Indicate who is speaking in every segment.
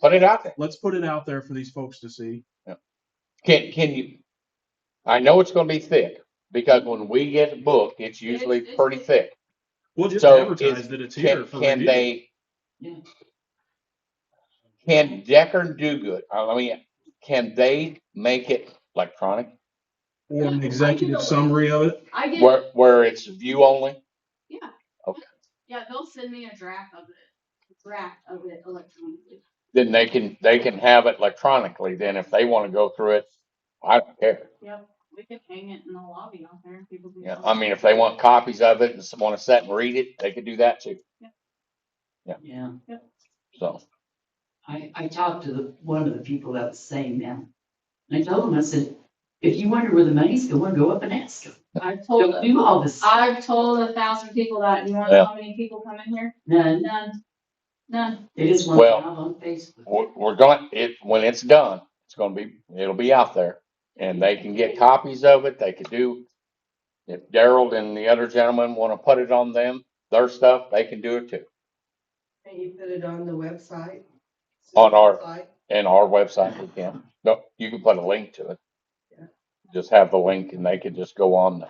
Speaker 1: Put it out there.
Speaker 2: Let's put it out there for these folks to see.
Speaker 1: Can, can you, I know it's gonna be thick, because when we get booked, it's usually pretty thick.
Speaker 2: We'll just
Speaker 1: So
Speaker 2: advertise
Speaker 1: is-
Speaker 2: that it's here
Speaker 1: Can,
Speaker 2: for
Speaker 1: can
Speaker 2: review.
Speaker 1: they? Can Decker do good? I I mean, can they make it electronic
Speaker 2: Or an executive summary of it.
Speaker 3: I get,
Speaker 1: where, where it's view only?
Speaker 3: yeah.
Speaker 1: Okay.
Speaker 3: Yeah, they'll send me a draft of it, draft of it electronically.
Speaker 1: Then they can, they can have it electronically then if they wanna go through it. I don't care.
Speaker 3: Yep, we could hang it in the lobby out there. People can.
Speaker 1: Yeah, I mean, if they want copies of it and wanna sit and read it, they could do that too.
Speaker 4: Yeah,
Speaker 1: So,
Speaker 4: I, I talked to the, one of the people that was saying that. And I told him, I said, if you wonder where the money's going, go up and ask them.
Speaker 3: I've told,
Speaker 4: Don't do all this,
Speaker 3: I've told a thousand people that, and you want to know how many people come in here?
Speaker 4: none,
Speaker 3: None, none.
Speaker 4: they just want it
Speaker 1: Well-
Speaker 4: all on Facebook.
Speaker 1: we're, we're going, it, when it's done, it's gonna be, it'll be out there. And they can get copies of it, they could do, if Daryl and the other gentleman wanna put it on them, their stuff, they can do it too,
Speaker 5: Can you put it on the website?
Speaker 1: On our-
Speaker 5: Site?
Speaker 1: and our website we can. No, you can put a link to it. Just have the link and they can just go on the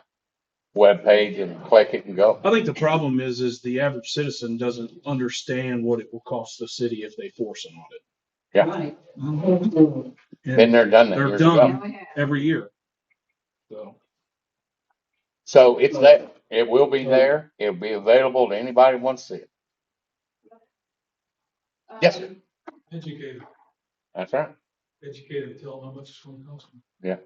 Speaker 1: webpage and click it and go.
Speaker 2: I think the problem is, is the average citizen doesn't understand what it will cost the city if they force an audit.
Speaker 1: Yeah.
Speaker 4: Right.
Speaker 6: Mm-hmm.
Speaker 1: Been there, done that.
Speaker 2: They're
Speaker 1: years
Speaker 2: done.
Speaker 1: ago.
Speaker 3: Yeah, we have.
Speaker 2: Every year. So,
Speaker 1: So it's there, it will be there, it'll be available to anybody who wants to see it. Yes, sir.
Speaker 3: Um,
Speaker 6: Educate them,
Speaker 1: That's right.
Speaker 6: educate them, tell them how much it's gonna cost them.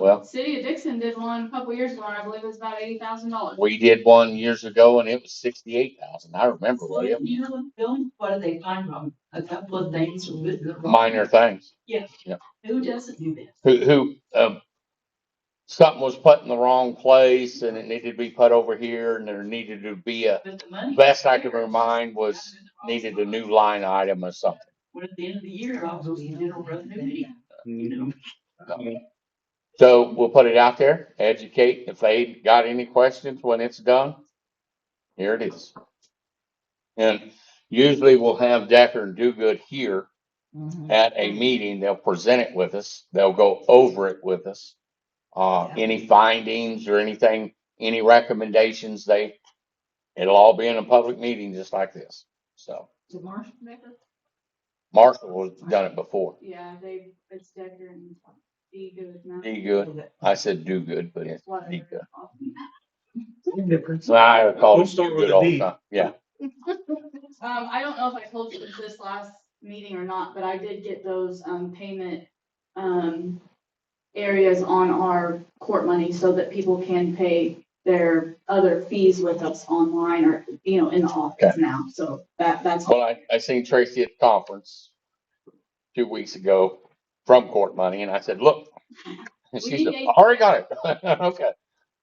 Speaker 1: Well,
Speaker 3: City of Dixon did one a couple years ago, and I believe it was about eighty thousand dollars.
Speaker 1: we did one years ago and it was sixty-eight thousand. I remember,
Speaker 4: So,
Speaker 1: William,
Speaker 4: you know, Bill, what do they find wrong? A couple of things. are good, good, wrong.
Speaker 1: minor things.
Speaker 4: Who doesn't do that?
Speaker 1: Who, who, um, something was put in the wrong place and it needed to be put over here and there needed to be a,
Speaker 4: But the money.
Speaker 1: best I can remind was needed a new line item or something.
Speaker 4: Well, at the end of the year, I'll go in and run the meeting, you know.
Speaker 1: So we'll put it out there, educate. If they got any questions when it's done, here it is. And usually we'll have Decker and Dogood here at a meeting. They'll present it with us. They'll go over it with us. Uh,
Speaker 5: Yeah.
Speaker 1: any findings or anything, any recommendations, they, it'll all be in a public meeting just like this. So
Speaker 4: Did Marshall make it?
Speaker 1: Marshall has done it before.
Speaker 3: Yeah, they, it's Decker and D good now.
Speaker 1: Do good. I said do good, but it's do good.
Speaker 3: Whatever.
Speaker 1: So I call
Speaker 2: We'll
Speaker 1: it
Speaker 2: start
Speaker 1: do
Speaker 2: with
Speaker 1: good
Speaker 2: a
Speaker 1: all
Speaker 2: D.
Speaker 1: the time. Yeah.
Speaker 3: Um, I don't know if I told you this last meeting or not, but I did get those, um, payment, um, areas on our court money so that people can pay their other fees with us online or, you know, in the office now. So that, that's. all.
Speaker 1: Well, I, I seen Tracy at the conference two weeks ago from court money and I said, look. And she said, I already got it. Okay.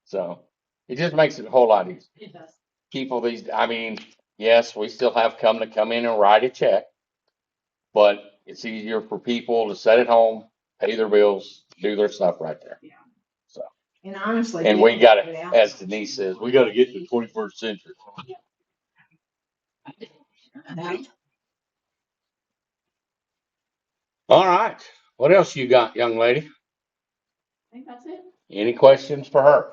Speaker 1: So it just makes it a whole lot easier.
Speaker 3: It does.
Speaker 1: People these, I mean, yes, we still have come to come in and write a check. But it's easier for people to sit at home, pay their bills, do their stuff right there.
Speaker 5: And honestly.
Speaker 1: And we got it, as Denise says, we gotta get to the twenty-first century. All right. What else you got, young lady?
Speaker 3: I think that's it.
Speaker 1: Any questions for her?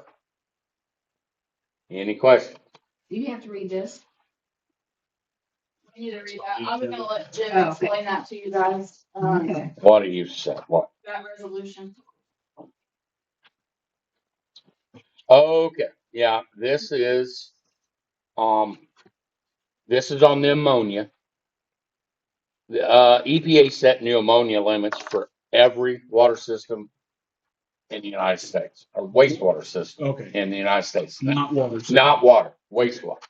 Speaker 1: Any questions?
Speaker 5: Do you have to read this?
Speaker 3: You need to read that. I'm gonna let
Speaker 5: Oh,
Speaker 3: Jim explain that to you guys, um,
Speaker 1: What do you say? What?
Speaker 3: that resolution.
Speaker 1: Okay, yeah, this is, um, this is on the ammonia. The, uh, EPA set new ammonia limits for every water system in the United States, or wastewater system
Speaker 2: okay,
Speaker 1: in the United States. now.
Speaker 2: not water.
Speaker 1: Not water, wastewater.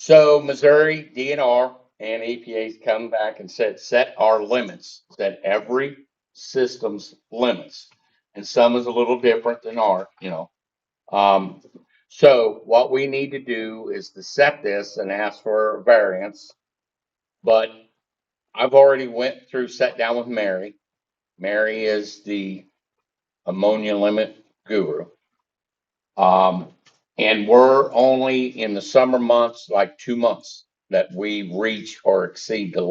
Speaker 1: So Missouri DNR and EPA's come back and said, set our limits, set every system's limits. And some is a little different than our, you know. Um, so what we need to do is to set this and ask for a variance. But I've already went through, sat down with Mary. Mary is the ammonia limit guru. Um, and we're only in the summer months, like two months, that we reach or exceed the